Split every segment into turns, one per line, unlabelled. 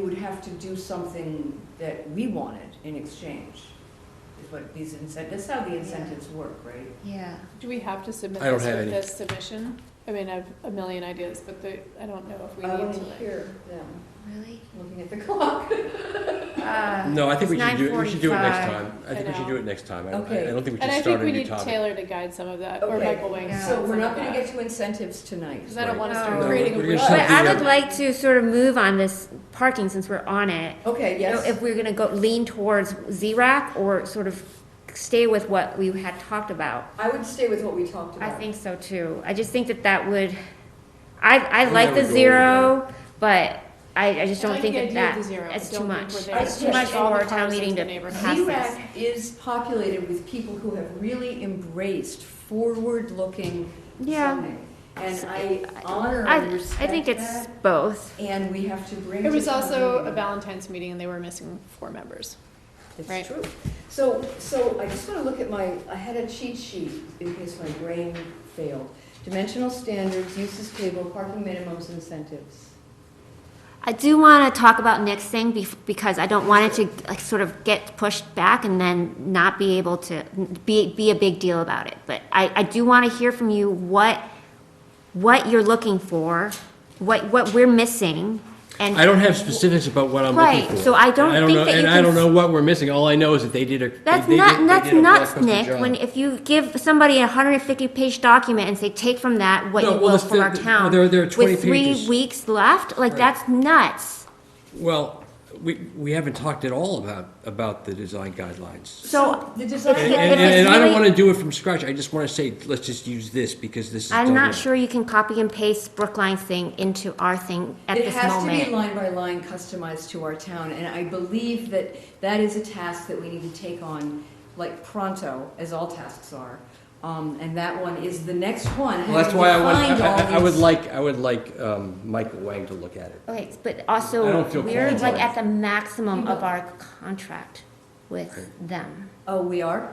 You would have to do something that we wanted in exchange, is what these incentives, that's how the incentives work, right?
Yeah,
Do we have to submit
I don't
this
have
with
any.
this submission? I mean, I have a million ideas, but the, I don't know if we
I
need to.
wouldn't hear them
really?
looking at the clock.
No, Uh,
No, I think we should do, it. we should do it next time. I
I
think we should
know.
do it next time. I don't,
Okay.
I- I don't think we
And I
should
think
start a
we
new
need
topic.
Taylor to guide some of that, or
Okay.
Michael Wang.
Yeah.
So we're not gonna get to incentives tonight.
Because I don't want to start
No,
creating a.
we're gonna
rule.
So
But I
the,
would
uh,
like to sort of move on this parking since we're on it.
Okay,
You know,
yes,
If we're gonna go lean towards ZRAC or sort of stay with what we had talked about.
I would stay with what we talked
I
about.
think so too. I just think that that would, I, I
I'm
like
never
the
going
zero, but I, I just
I
don't
like
think
the
that
idea
that,
of the zero. I
it's
don't
too
think
much.
we're there.
It's too much
Push all
for
the
a
cars
town meeting
into the
to
neighborhood.
pass this.
ZRAC is populated with people who have really embraced forward-looking
Yeah.
zoning. And I
I-
honor
I,
and
I think
respect
it's
that,
both.
and we have to bring.
It
to
was
town
also a
meeting.
Valentine's meeting and they were missing four members.
It's
Right.
true. So, so I just want to look at my, I had a cheat sheet in case my brain failed. Dimensional standards, uses table, parking minimums, incentives.
I do want to talk about next thing bef- because I don't want it to like sort of get pushed back and then not be able to be be a big deal about it. But I, I do want to hear from you what what you're looking for, what what we're missing, and
I don't have specifics about what I'm
Right,
looking for.
so I don't
And
think
know-
that you
And I
can
don't
s-
know what we're missing. All I know is that they did a. they-
that's
they
not
did- they
that's
did a
nuts,
blockbuster
Nick.
job.
When if you give somebody a 150 page document and say take from that what
No,
you
well,
will
it's
from
the-
our
the-
town
there- there are 20
with three
pages.
weeks left, like that's nuts.
Well, we, we haven't talked at all about, about the design guidelines.
So
The
And,
design.
If it- if
and-
it's
and I don't
really-
wanna do it from scratch. I just wanna say, let's just use this because this is.
I'm
done
not
now.
sure you can copy and paste Brookline's thing into our thing at
It
this
has to be
moment.
line by line customized to our town, and I believe that that is a task that we need to take on, like pronto, as all tasks are. Um, and that one is the next one.
Well, that's why I want,
Having
I, I- I
defined all
would
these-
like, I would like, um, Michael Wang to look at it.
Okay, but
I
also,
don't feel
we're
qualified.
like at the maximum of our contract with them.
Oh, we are?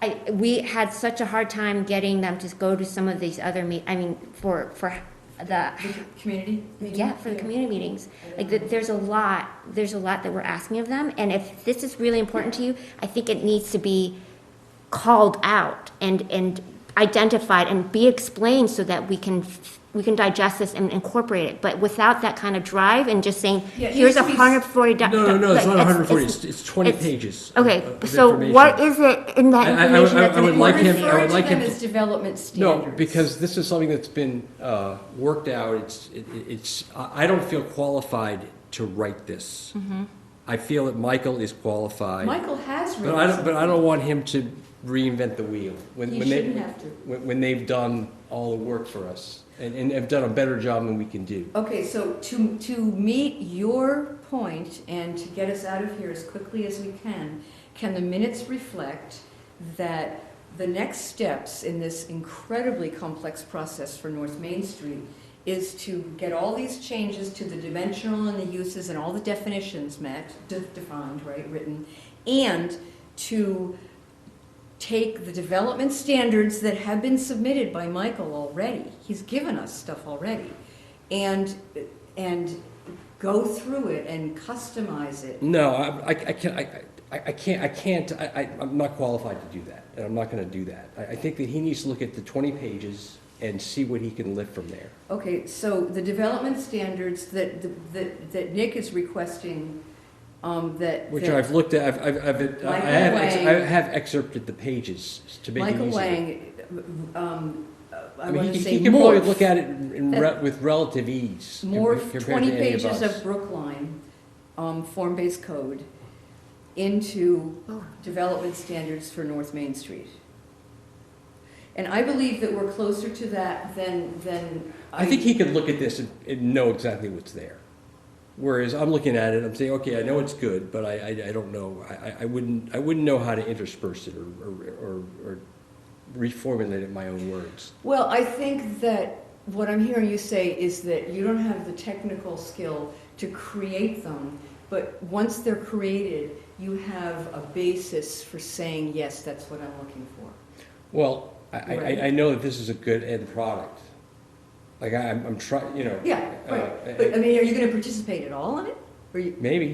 I, we had such a hard time getting them to go to some of these other meet, I mean, for, for the,
The c- community?
yeah, for the community meetings. Like, th- there's a lot, there's a lot that we're asking of them, and if this is really important to you, I think it needs to be called out and, and identified and be explained so that we can, f- we can digest this and incorporate it. But without that kind of drive and just saying,
Yeah, it needs
here's a
to be s-
hundred forty.
No, no, no, it's not hundred and forty, it's, it's twenty
it's-
pages. of-
Okay,
of
so what
information.
is it in that
I- I- I
information
would-
that's
I would like
important?
him- I
Refer
would
to
like
them
him
as
to-
development standards.
No, because this is something that's been, uh, worked out, it's, it- it's, I, I don't feel qualified to write this.
Mm-hmm.
I feel that Michael is qualified.
Michael has
But I don't,
written
but I don't want him to reinvent the wheel. when
He
when they-
shouldn't have to.
When, when they've done all the work for us, and, and have done a better job than we can do.
Okay, so to, to meet your point and to get us out of here as quickly as we can, can the minutes reflect that the next steps in this incredibly complex process for North Main Street is to get all these changes to the dimensional and the uses and all the definitions met, de- defined, right, written, and to take the development standards that have been submitted by Michael already, he's given us stuff already, and, and go through it and customize it.
No, I, I can't, I, I I can't, I can't, I, I- I'm not qualified to do that, and I'm not gonna do that. I, I think that he needs to look at the twenty pages and see what he can lift from there.
Okay, so the development standards that, that, that Nick is requesting, um, that.
Which
that
I've looked at, I've, I've, I've, I
Michael
have, ex-
Wang-
I have excerpted the pages to make it
Michael
easier.
Wang, um, I
mean, he
wanna
can-
say
He can probably
morph.
look at it in, re- with relative ease. com-
morph
compared to
twenty
any of
pages
us.
of Brookline, um, form-based code into
Oh.
development standards for North Main Street. And I believe that we're closer to that than, than.
I think he could look at this and, and know exactly what's there. Whereas I'm looking at it, I'm saying, okay, I know it's good, but I, I, I don't know, I, I- I wouldn't, I wouldn't know how to intersperse it or, or, or- or reformulate it in my own words.
Well, I think that what I'm hearing you say is that you don't have the technical skill to create them, but once they're created, you have a basis for saying, yes, that's what I'm looking for.
Well, I, I,
Right.
I- I know that this is a good end product. Like, I- I'm, I'm trying, you know.
Yeah,
uh,
right. But I mean, are you gonna participate at all in it? Or you,
maybe.